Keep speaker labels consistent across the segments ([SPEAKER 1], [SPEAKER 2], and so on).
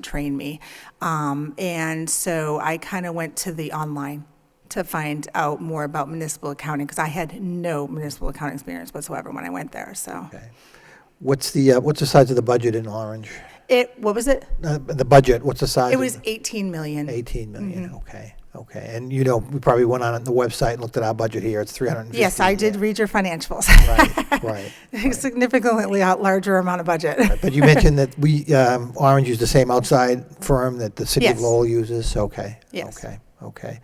[SPEAKER 1] train me. Um, and so I kind of went to the online to find out more about municipal accounting because I had no municipal accounting experience whatsoever when I went there. So
[SPEAKER 2] Okay. What's the, uh, what's the size of the budget in Orange?
[SPEAKER 1] it, what was it?
[SPEAKER 2] Uh, The budget, what's the size?
[SPEAKER 1] It
[SPEAKER 2] of
[SPEAKER 1] was Mm-hmm. 18 million.
[SPEAKER 2] 18 million, okay, okay. And you know, we probably went on the website and looked at our budget here, it's 350.
[SPEAKER 1] Yes, I did read your financials.
[SPEAKER 2] Right, right.
[SPEAKER 1] Significantly out- larger amount of budget.
[SPEAKER 2] But you mentioned that we, um, Orange used the same outside firm that the city of
[SPEAKER 1] Yes.
[SPEAKER 2] Lowell uses? Okay.
[SPEAKER 1] Yes.
[SPEAKER 2] Okay, okay.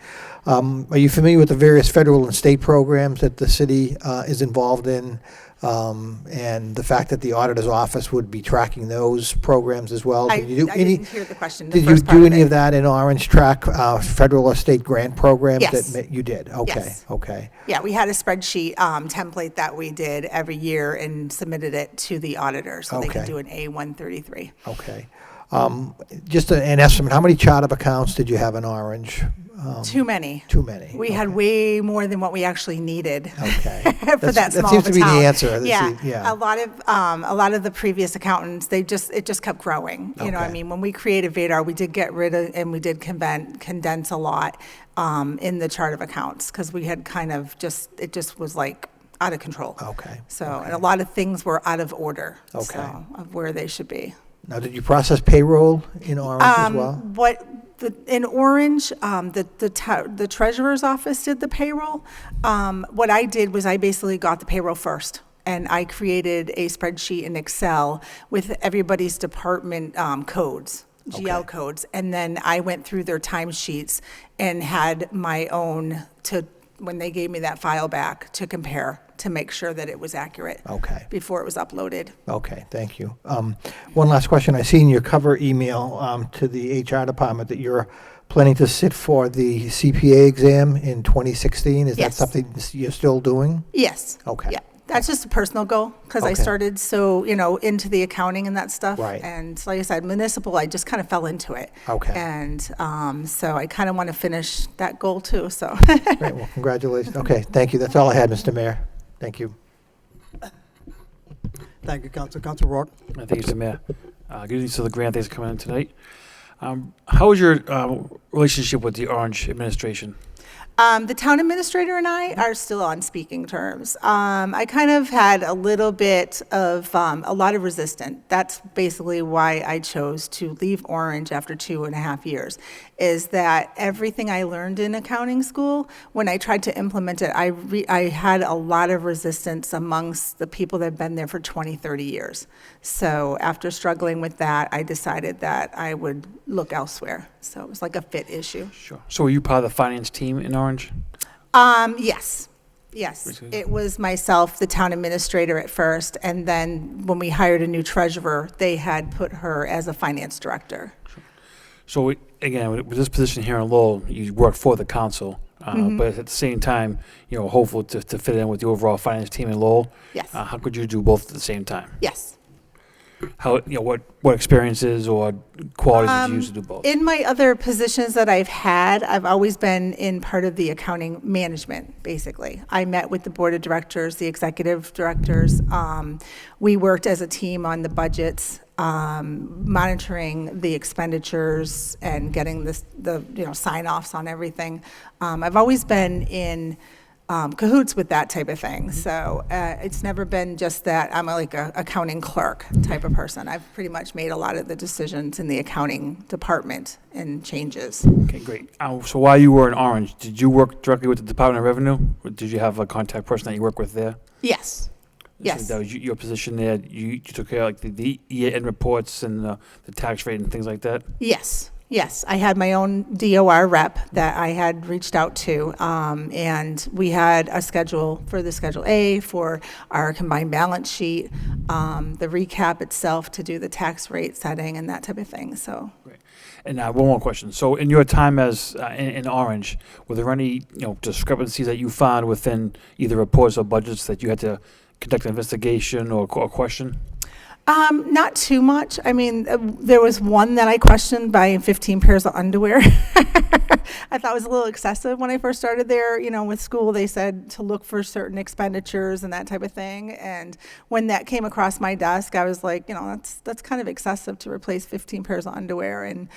[SPEAKER 2] Um, Are you familiar with the various federal and state programs that the city uh, is involved in? Um, And the fact that the auditor's office would be tracking those programs as well?
[SPEAKER 1] I,
[SPEAKER 2] Did you do
[SPEAKER 1] I
[SPEAKER 2] any-
[SPEAKER 1] didn't hear the question. The
[SPEAKER 2] Did you
[SPEAKER 1] first part
[SPEAKER 2] do any
[SPEAKER 1] it.
[SPEAKER 2] of that in Orange Track, uh, federal or state grant programs? that
[SPEAKER 1] Yes.
[SPEAKER 2] ma- You did? Okay,
[SPEAKER 1] Yes.
[SPEAKER 2] okay.
[SPEAKER 1] Yeah, we had a spreadsheet um, template that we did every year and submitted it to the auditor so they could
[SPEAKER 2] Okay.
[SPEAKER 1] do an A133.
[SPEAKER 2] Okay. Um, Just a- an estimate, how many chart of accounts did you have in Orange? Um,
[SPEAKER 1] Too many.
[SPEAKER 2] Too many?
[SPEAKER 1] We had way more than what we actually needed.
[SPEAKER 2] Okay.
[SPEAKER 1] For
[SPEAKER 2] That's-
[SPEAKER 1] that small
[SPEAKER 2] That seems
[SPEAKER 1] of a
[SPEAKER 2] to be the
[SPEAKER 1] town.
[SPEAKER 2] answer. That's
[SPEAKER 1] Yeah,
[SPEAKER 2] the-
[SPEAKER 1] a lot of, um, a lot of the previous accountants, they just, it just kept growing. You know, what I
[SPEAKER 2] Okay.
[SPEAKER 1] mean, when we created Vadar, we did get rid of, and we did conven- condense a lot um, in the chart of accounts, because we had kind of just, it just was like out of control.
[SPEAKER 2] Oh, Okay.
[SPEAKER 1] So, and a lot of things were out of order,
[SPEAKER 2] Okay.
[SPEAKER 1] so, of where they should be.
[SPEAKER 2] Now, did you process payroll in Orange
[SPEAKER 1] Um,
[SPEAKER 2] as well?
[SPEAKER 1] What, the, in Orange, um, the, the ta- the treasurer's office did the payroll. Um, what I did was I basically got the payroll first. And I created a spreadsheet in Excel with everybody's department, um, codes, GL
[SPEAKER 2] Okay.
[SPEAKER 1] codes. And then I went through their timesheets and had my own to, when they gave me that file back, to compare, to make sure that it was accurate.
[SPEAKER 2] Okay.
[SPEAKER 1] Before it was uploaded.
[SPEAKER 2] Okay, thank you. Um, One last question. I see in your cover email um, to the HR department that you're planning to sit for the CPA exam in 2016. Is that
[SPEAKER 1] Yes.
[SPEAKER 2] something s- you're still doing?
[SPEAKER 1] Yes.
[SPEAKER 2] Okay.
[SPEAKER 1] Yeah, that's just a personal goal, because I
[SPEAKER 2] Okay.
[SPEAKER 1] started so, you know, into the accounting and that stuff.
[SPEAKER 2] Right.
[SPEAKER 1] And like I said, municipal, I just kind of fell into it.
[SPEAKER 2] Okay.
[SPEAKER 1] And um, so I kind of want to finish that goal too, so.
[SPEAKER 2] Great, well, congratulations. Okay, thank you. That's all I had, Mr. Mayor. Thank you.
[SPEAKER 3] Thank you, Council. Council Rourke.
[SPEAKER 4] Uh, Thank you, Mr. Mayor. Uh, Good evening to the grant thanks for coming in tonight. Um, How is your uh, relationship with the Orange administration?
[SPEAKER 1] Um, the town administrator and I are still on speaking terms. Um, I kind of had a little bit of um, a lot of resistance. That's basically why I chose to leave Orange after two and a half years. Is that everything I learned in accounting school? When I tried to implement it, I re- I had a lot of resistance amongst the people that have been there for 20, 30 years. So after struggling with that, I decided that I would look elsewhere. So it was like a fit issue.
[SPEAKER 4] Sure. So were you part of the finance team in Orange?
[SPEAKER 1] Um, yes, yes.
[SPEAKER 4] Which is-
[SPEAKER 1] It was myself, the town administrator at first, and then when we hired a new treasurer, they had put her as a finance director.
[SPEAKER 4] So we- again, with with this position here in Lowell, you work for the council, uh, but at the same time, you know, hopeful to to fit in with the overall finance team in Lowell.
[SPEAKER 1] Yes,
[SPEAKER 4] Uh, How could you do both at the same time?
[SPEAKER 1] yes.
[SPEAKER 4] How, you know, what what experiences or qualities did you use to do both?
[SPEAKER 1] In my other positions that I've had, I've always been in part of the accounting management, basically. I met with the board of directors, the executive directors. Um, we worked as a team on the budgets, um, monitoring the expenditures and getting this, the, you know, sign offs on everything. Um, I've always been in um, cahoots with that type of thing. So uh, it's never been just that I'm like a accounting clerk type of person. I've pretty much made a lot of the decisions in the accounting department and changes.
[SPEAKER 4] Okay, great. Uh, So while you were in Orange, did you work directly with the Department of Revenue? Or did you have a contact person that you work with there?
[SPEAKER 1] Yes. Yes.
[SPEAKER 4] So that was y- your position there. You, you took care of like the, the year end reports and the, the tax rate and things like that.
[SPEAKER 1] Yes, yes. I had my own DOR rep that I had reached out to, um, and we had a schedule for the Schedule A, for our combined balance sheet, um, the recap itself to do the tax rate setting and that type of thing. So
[SPEAKER 4] And uh, one more question. So in your time as uh, in, in Orange, were there any you know discrepancies that you found within either reports or budgets that you had to conduct an investigation or, qu- or question?
[SPEAKER 1] Um, not too much. I mean, uh, there was one that I questioned by 15 pairs of underwear. I thought was a little excessive when I first started there. You know, with school, they said to look for certain expenditures and that type of thing. And when that came across my desk, I was like, you know, that's that's kind of excessive to replace 15 pairs of underwear and